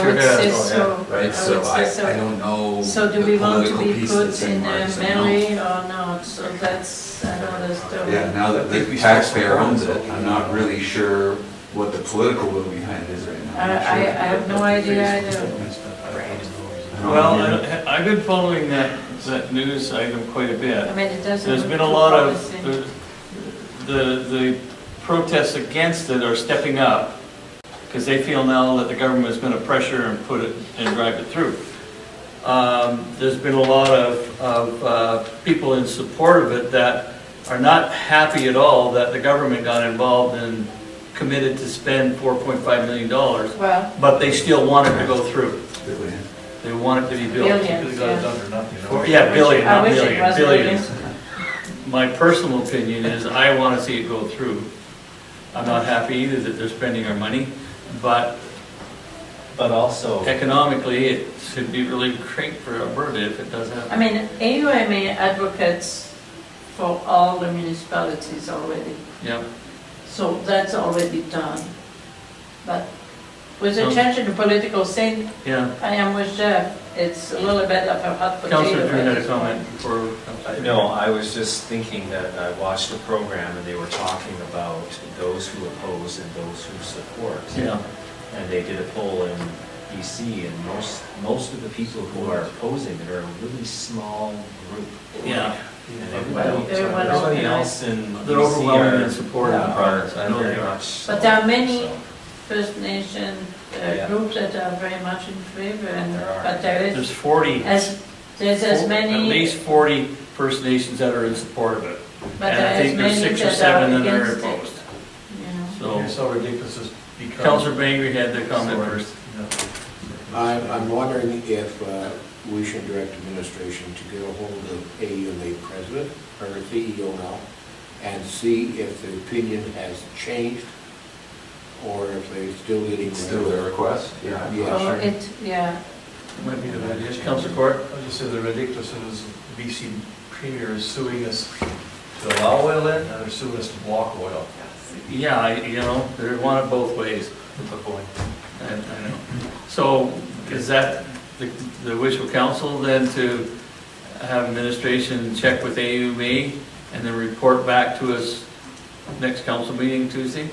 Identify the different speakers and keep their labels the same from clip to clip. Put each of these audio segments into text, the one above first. Speaker 1: Sure
Speaker 2: It
Speaker 1: does.
Speaker 2: says
Speaker 1: Oh, yeah.
Speaker 2: so.
Speaker 3: Right,
Speaker 2: Oh,
Speaker 3: so
Speaker 2: it
Speaker 3: I,
Speaker 2: says so.
Speaker 3: I don't know.
Speaker 2: So do
Speaker 3: the
Speaker 2: we want to
Speaker 3: political
Speaker 2: be
Speaker 3: piece
Speaker 2: put
Speaker 3: that's
Speaker 2: in
Speaker 3: there,
Speaker 2: uh,
Speaker 3: so no.
Speaker 2: Mary or not? So that's, I don't understand.
Speaker 3: Yeah, now that the taxpayer owns it, I'm not really sure what the political will behind it is right now.
Speaker 2: I, I, Uh, I have no idea either.
Speaker 3: I don't
Speaker 4: Well,
Speaker 3: know.
Speaker 4: I- I've been following that, that news item quite a
Speaker 2: I
Speaker 4: bit.
Speaker 2: mean, it doesn't.
Speaker 4: There's
Speaker 2: look
Speaker 4: been a
Speaker 2: too
Speaker 4: lot of,
Speaker 2: promising.
Speaker 4: the, the protests against it are stepping up because they feel now that the government is going to pressure and put it, and drive it through. Um, There's been a lot of, of uh, people in support of it that are not happy at all that the government got involved and committed to spend $4.5 million,
Speaker 2: Well,
Speaker 4: but they still want it to go through. They want it to be built.
Speaker 2: billions, yeah.
Speaker 4: Or- Yeah, billion,
Speaker 2: I
Speaker 4: not
Speaker 2: wish it
Speaker 4: million,
Speaker 2: was
Speaker 4: billion.
Speaker 2: billions.
Speaker 4: My personal opinion is I want to see it go through. I'm not happy either that they're spending our money, but
Speaker 5: But also,
Speaker 4: economically, it should be really great for Alberta if it does happen.
Speaker 2: I mean, AUMA advocates for all the municipalities already.
Speaker 4: Yeah,
Speaker 2: So that's already done. But with the
Speaker 4: Coun-
Speaker 2: change in the political scene,
Speaker 4: yeah.
Speaker 2: I am with Jeff, it's a little bit of a hot potato.
Speaker 4: Counselor Drew
Speaker 2: at
Speaker 4: had a
Speaker 2: this
Speaker 4: comment
Speaker 2: point.
Speaker 4: for. Counselor
Speaker 5: no, I was just thinking that I watched a program and they were talking about those who oppose and those who support.
Speaker 4: Drew. Yeah,
Speaker 5: And they did a poll in DC and most, most of the people who are opposing it are a really small group.
Speaker 4: yeah.
Speaker 5: And everybody,
Speaker 2: They're well
Speaker 5: everybody
Speaker 2: organized.
Speaker 5: else in
Speaker 4: They're
Speaker 5: DC
Speaker 4: overwhelming in
Speaker 5: are.
Speaker 4: support of the products, I
Speaker 5: are
Speaker 4: know they
Speaker 5: very
Speaker 4: are.
Speaker 5: much so,
Speaker 2: But there are many
Speaker 5: so.
Speaker 2: First Nation uh,
Speaker 5: Yeah.
Speaker 2: groups that are very much in favor, and,
Speaker 5: There are.
Speaker 2: but there is,
Speaker 4: There's 40,
Speaker 2: as, there's as
Speaker 4: at
Speaker 2: many,
Speaker 4: least 40 First Nations that are in support of it.
Speaker 2: but
Speaker 4: And I
Speaker 2: there
Speaker 4: think
Speaker 2: is
Speaker 4: there's
Speaker 2: many
Speaker 4: six or
Speaker 2: that
Speaker 4: seven
Speaker 2: are
Speaker 4: that are
Speaker 2: against it.
Speaker 4: opposed.
Speaker 2: you know.
Speaker 4: So
Speaker 1: so ridiculous it's become.
Speaker 4: Counselor Bangry had the comment first.
Speaker 6: I'm, I'm wondering if uh, we should direct administration to get a hold of AUMA president, or CEO now, and see if the opinion has changed, or if they're still getting.
Speaker 3: It's still their request, yeah.
Speaker 6: Yeah,
Speaker 2: So
Speaker 6: sure.
Speaker 2: it, yeah,
Speaker 4: Might be a good idea. Counselor Court?
Speaker 1: I just said the ridiculous is BC Premier is suing us to allow oil in, and they're suing us to block oil.
Speaker 4: Yeah, I- you know, they want it both ways.
Speaker 1: What's the point?
Speaker 4: I I know. So is that the the wish of council then to have administration check with AUMA E and then report back to us next council meeting Tuesday?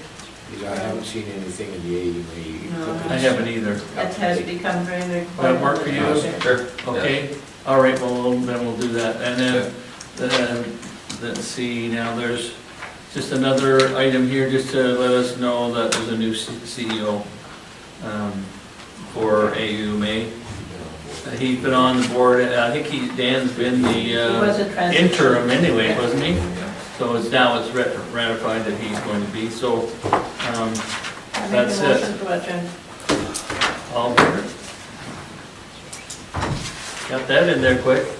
Speaker 6: Because I haven't seen anything in the AUMA.
Speaker 2: No,
Speaker 4: I haven't either.
Speaker 2: that has become very required.
Speaker 4: That work for you?
Speaker 3: Sure.
Speaker 4: Okay, all right, well, we'll- then we'll do that. And then, then, let's see, now there's just another item here, just to let us know that there's a new C- CEO um, for AUMA. Uh, He's been on the board, and I think he, Dan's been the
Speaker 2: It was
Speaker 4: uh,
Speaker 2: a transition.
Speaker 4: interim anyway, wasn't he? So it's now it's rat- ratified that he's going to be, so, um,
Speaker 2: I make a
Speaker 4: That's it.
Speaker 2: motion to adjourn.
Speaker 4: all in favor? Got that in there quick.